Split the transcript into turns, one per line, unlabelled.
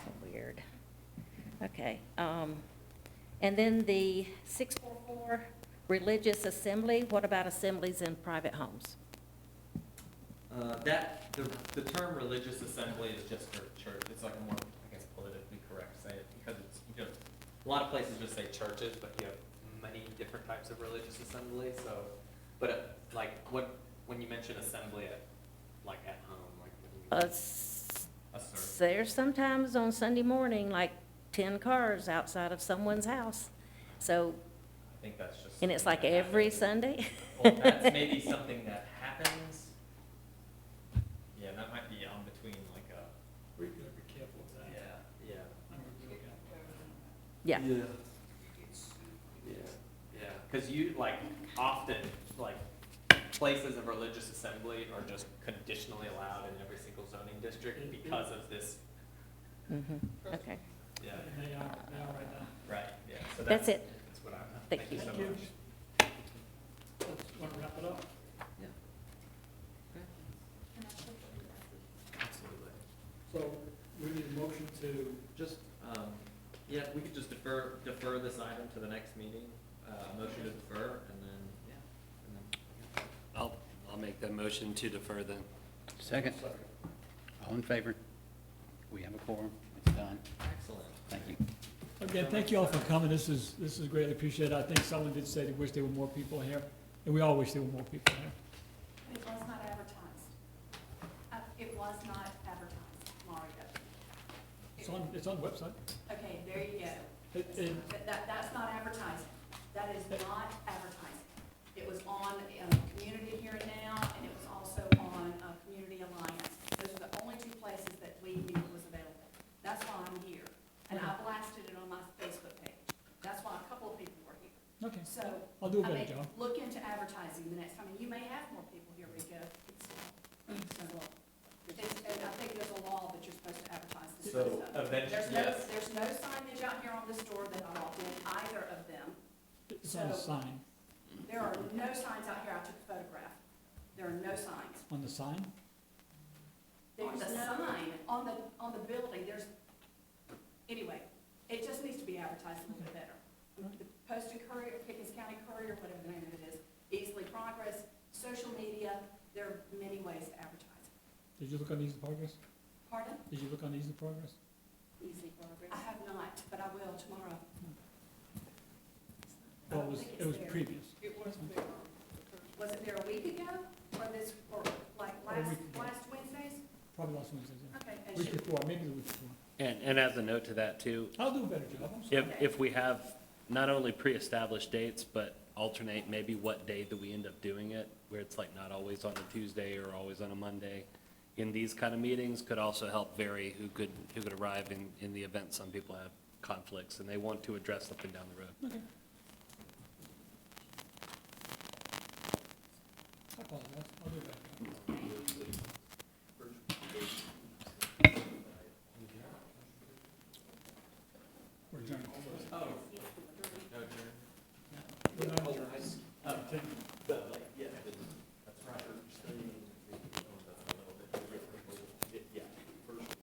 Okay. um, And then the 644, religious assembly, what about assemblies in private homes?
Uh, that, the, the term religious assembly is just for church, it's like a more, I guess, politically correct to say it, because it's, you know, a lot of places just say churches, but you have many different types of religious assembly, so, but uh, like, what, when you mention assembly at, like, at home, like, what do you mean?
Us-
A service.
There's sometimes on Sunday morning, like 10 cars outside of someone's house. So,
I think that's just.
and it's like
something that
every
happens.
Sunday?
Well, that's maybe something that happens. Yeah, that might be on between like a,
We gotta be careful
yeah,
with that.
yeah.
Yeah.
Yeah, yeah, because you, like, often, like, places of religious assembly are just conditionally allowed in every single zoning district because of this,
Mhm, Okay.
yeah,
They are, they are right now.
right, yeah, so that's.
That's it.
That's what I'm,
Thank
thank you
you.
so
Thank you.
much.
Let's, wanna wrap it up?
Absolutely.
So, we need a motion to,
Just, um, yeah, we could just defer, defer this item to the next meeting, uh, motion to defer, and then, yeah, and then.
I'll, I'll make that motion to defer then.
Second, all in favor? We have a quorum, it's done,
Excellent.
thank you.
again, thank you all for coming, this is, this is greatly appreciated, I think someone did say they wish there were more people here, and we all wish there were more people here.
It was not advertised. Uh, It was not advertised, Mario.
It's on, it's on the website.
Okay, there you go.
It, it,
That- That, that's not advertising. That is not advertising. It was on, um, Community Here and Now, and it was also on, uh, Community Alliance. Those are the only two places that we knew it was available. That's why I'm here, and I blasted it on my Facebook page. That's why a couple of people were here.
okay,
So,
I'll do a
I
better
mean,
job.
Look into advertising the next time, and you may have more people here, Rico. It's no law. It's- And I think there's a law that you're supposed to advertise this sort of
So, uh,
stuff.
eventually,
There's no,
yes.
there's no signage out here on this door that I walked in, either of them.
It's on the
so-
sign,
There are no signs out here, I took a photograph. There are no signs.
on the sign,
There's the sign on the, on the building, there's, anyway, it just needs to be advertised a little bit better. The Post and Courier, Pickens County Courier, whatever the name of it is, Easily Progress, social media, there are many ways to advertise.
did you look on Easy Progress?
Pardon?
Did you look on Easy Progress?
Easily Progress. I have not, but I will tomorrow. I
Well,
don't
it was,
think it's
it was
there.
previous.
It was there. Was it there a week ago, or this, or like
Or a
last,
week ago.
last Wednesdays?
Probably last Wednesday, yeah.
Okay. and
Week
she-
before, maybe the week before.
And, and as a note to that too,
I'll do a better job, I'm sorry.
if, if we have not only pre-established dates, but alternate maybe what day do we end up doing it, where it's like not always on a Tuesday or always on a Monday, in these kind of meetings could also help vary who could, who could arrive in, in the event some people have conflicts and they want to address something down the road.
I apologize, I'll do a better job.
Thank